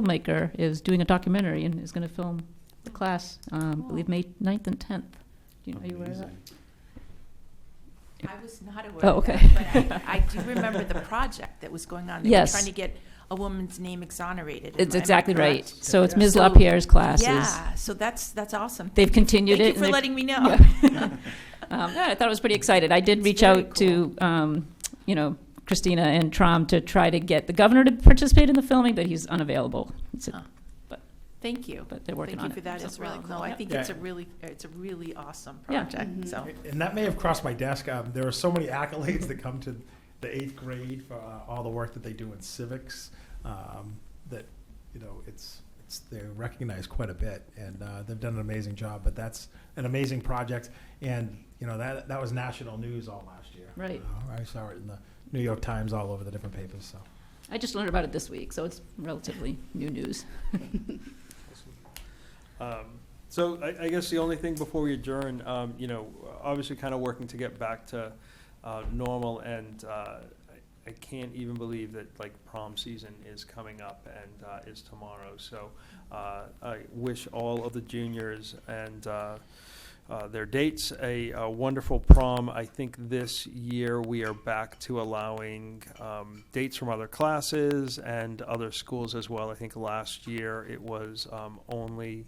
filmmaker is doing a documentary and is going to film the class, um, I believe, May 9th and 10th. Do you, are you aware of that? Amazing. Yeah. I was not aware Oh, of okay. that, but I, I do remember the project that was going on. They Yes. were trying to get a woman's name exonerated. Am I- am It's I exactly right. correct? So it's Ms. So- LaPierre's classes. Yeah, so that's, that's awesome. They've continued Thank you it. and for they've- letting me know. Yeah. Um, yeah, I thought it was pretty excited. I did It's reach very out to, um, you know, Christina and Trom to try to get the governor to participate in the filming, but he's unavailable. It's a- Oh, Thank you. But they're working Thank on you it. for that So- as well. No, I Yeah. think it's a Yeah. really, it's a really awesome Yeah. Mm-hmm. project, so. And that may have crossed my desk. Um, there are so many accolades that come to the eighth grade for uh, all the work that they do in civics. Um, that you know, it's it's they're recognized quite a bit, and uh, they've done an amazing job. But that's an amazing project, and you know that that was national news all last year. Right. Uh, I saw it in the New York Times, all over the different papers. So. I just learned about it this week, so it's relatively new news. Um, So I, I guess the only thing before we adjourn, um, you know, obviously kind of working to get back to, uh, normal and, uh, I- I can't even believe that like prom season is coming up and, uh, is tomorrow. So, uh, I wish all of the juniors and, uh, uh, their dates a, a wonderful prom. I think this year we are back to allowing, um, dates from other classes and other schools as well. I think last year it was, um, only,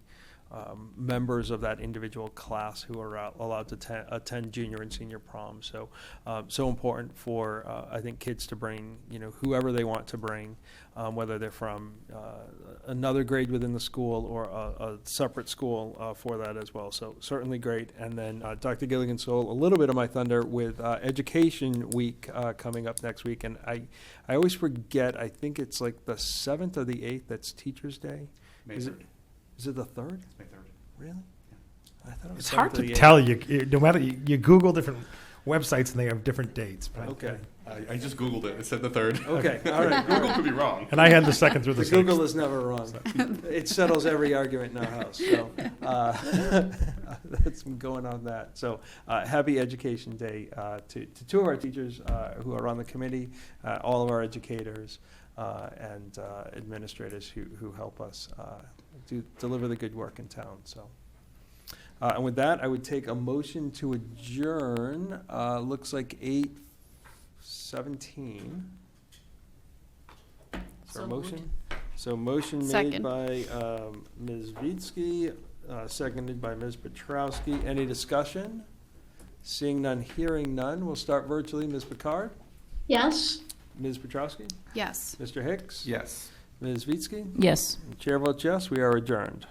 um, members of that individual class who are al- allowed to atten- attend junior and senior prom. So, uh, so important for uh, I think kids to bring you know whoever they want to bring, um, whether they're from uh, another grade within the school or a, a separate school uh, for that as well. So certainly great. And then uh, Dr. Gilligan stole a little bit of my thunder with uh, Education Week uh, coming up next week, and I I always forget. I think it's like the seventh or the eighth. That's Teachers Day. May Is it- 3rd. Is it the third? It's May 3rd. Really? I thought it was It's hard to 7th. tell you, you- No matter you, you Google different websites, and they have different dates. but- Okay. I, I just Googled it. It said the 3rd. Okay, all right. Google could be wrong. And I had the second through the, The sixth. Google is never wrong. It settles every argument in our house, so, uh, that's going on that. So, uh, happy Education Day, uh, to, to two of our teachers, uh, who are on the committee, uh, all of our educators, uh, and, uh, administrators who, who help us, uh, do, deliver the good work in town, so. Uh, and with that, I would take a motion to adjourn, uh, looks like eight seventeen. Is there So a moved. motion? So motion made Second. by um, Ms. Vitsky, uh, seconded by Ms. Petrowski. Any discussion? Seeing none, hearing none, we'll start virtually. Ms. Picard? Yes. Ms. Petrowski? Yes. Mr. Hicks? Yes. Ms. Vitsky? Yes. Chair votes yes, we are adjourned.